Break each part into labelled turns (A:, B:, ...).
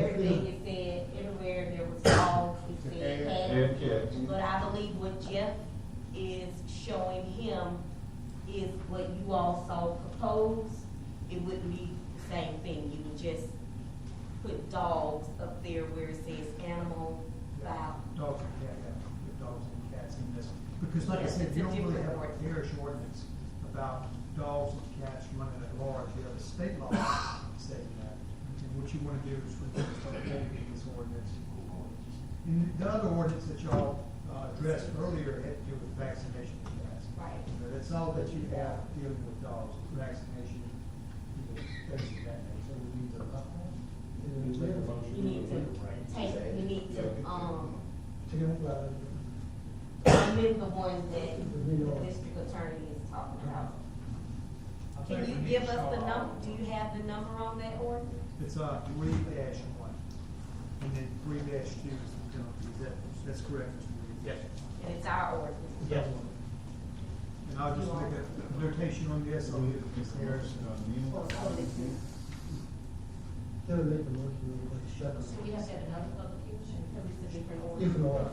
A: Everything you said, everywhere there was dogs, you said cats.
B: And cats.
A: But I believe what Jeff is showing him is what you all saw proposed. It wouldn't be the same thing, you would just put dogs up there where it says animal, fowl.
C: Dogs and cat, yeah, dogs and cats in this, because like I
A: Yes,
C: said,
A: it's
C: you
A: a
C: don't really have
A: different
C: a
A: ordinance.
C: parish ordinance about dogs and cats running at large, you have a state law saying that. And what you wanna do is when you start making this ordinance. And the other ordinance that y'all uh, addressed earlier had to do with vaccination of cats.
A: Right.
C: So That's all that you have dealing with dogs, vaccination, you know, things of that nature. So we need to-
A: We need to take, we need to, um, amend the ones that the district attorney is talking about.
C: I think
A: Can
C: we
A: you
C: need
A: give
C: to
A: us the
C: start
A: number,
C: all-
A: do you have the number on that ordinance?
C: It's uh three dash one, and then three dash two is the penalty, is that, that's correct, Mr. Reed? Yes.
A: And it's our ordinance.
C: Yes. And I'll just make a notation on this, I'll do the comparison.
B: um,
A: So
D: Gotta make a motion, like, shut up.
A: we have to have another public hearing, because it's a different order.
D: Different order.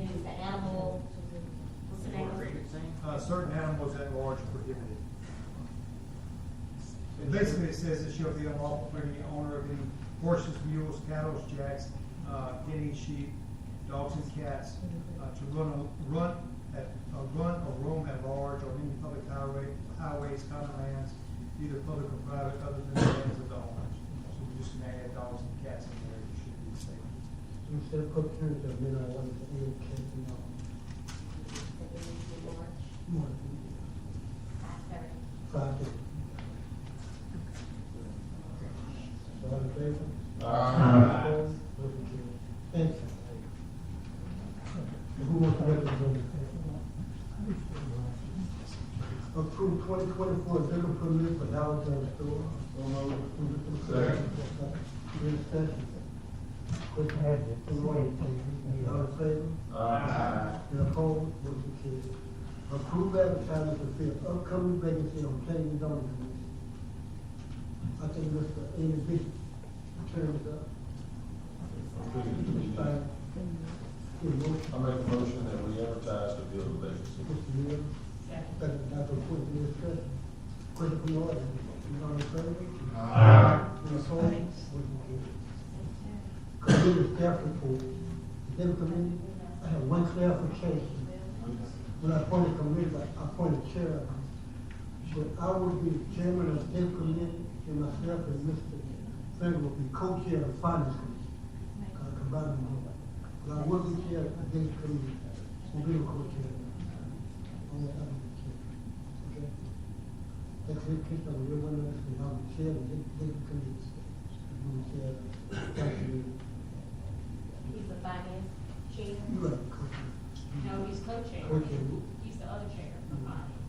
A: And it's the animal, what's the name?
C: Uh, certain animals at large prohibited. And basically, it says it shall be unlawful for any owner of any horses, mules, cattle, jacks, uh, guinea sheep, dogs and cats, uh, to run, a- run, at, uh, run or roam at large on any public highway, highways, common lands, either public or private, other than the lands of the owners. So we just gonna add dogs and cats in there, it should be safe.
D: Instead of Cook County, I mean, I want to, you know, kids and all. More than five days. So, all in favor?
B: Aye.
D: Opposed? Motion carried. Thank you. Who wants to represent? Approve twenty twenty-four liquor permit for Downtown Store.
B: Second.
D: Any discussion? Quick hand, All in favor? And opposed, motion carries. Approve advertising to fill upcoming vacancy on planning and zoning commission. I think Mr. Amy Bishop, term is up. Expired. Give a motion,
B: I make a motion that we advertise to fill the vacancy.
D: Mr. Miller, second, Dr. Quinn, any discussion? Question from the audience, you know, in favor? Any opposed, motion carries. Committee staff report, executive committee, I have one clarification. When I appointed committee, I appointed chair, but I will be chairman of the committee, and myself and Mr. Frank will be co-chair of finance committee, uh, combining them. But I will be chair of this committee, will be a co-chair. Only I will be chair, okay? That's it, Chris, I'm real one, and I'll be chair of this, this committee. I'll be chair of that committee.
A: He's the finance chair.
D: You are co-chair.
A: No, he's co-chair.
D: Co-chair.
A: He's the other chair for finance.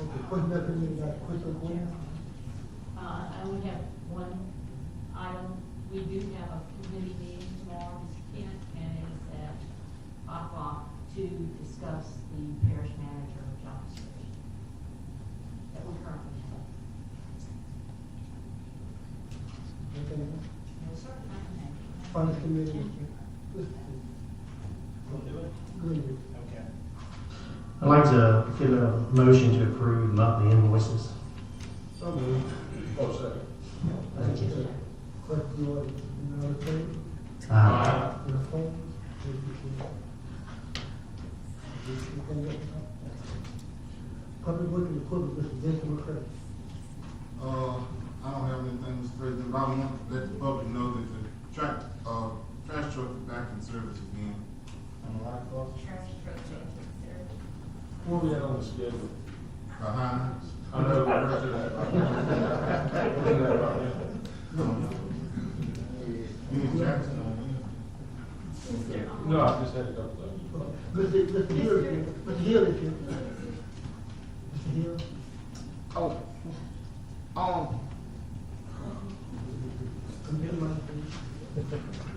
D: Okay, question that we got, question one?
E: Uh, I only have one item. We do have a committee meeting tomorrow, Mr. Kent, and it is at five o'clock to discuss the parish manager job search that we currently have.
D: Okay,
E: No, sir, not the manager.
D: finance committee. Mr. Green.
F: I'd like to give a motion to approve monthly invoices.
B: So moved. Oh, second.
F: Thank you.
D: Question one, you know, okay?
F: Aye.
D: Your phone, if you can. Public working equipment, Mr. Jason McCray.
G: Uh, I don't have anything, Mr. President, but I want to let the public know that the track, uh, trash truck is back in service again. Am I right, boss?
A: Trash truck manager.
B: Where we at on the schedule?
G: Behind us.
B: I know, we're up to that. We're up to that right now.
G: You in Jackson on
E: Uh-huh.
B: No, I just had it up there.
D: Mr. Mr. Hill, is here. Mr. Hill is here. Mr. Hill,
G: Oh, um,
D: come here, my friend.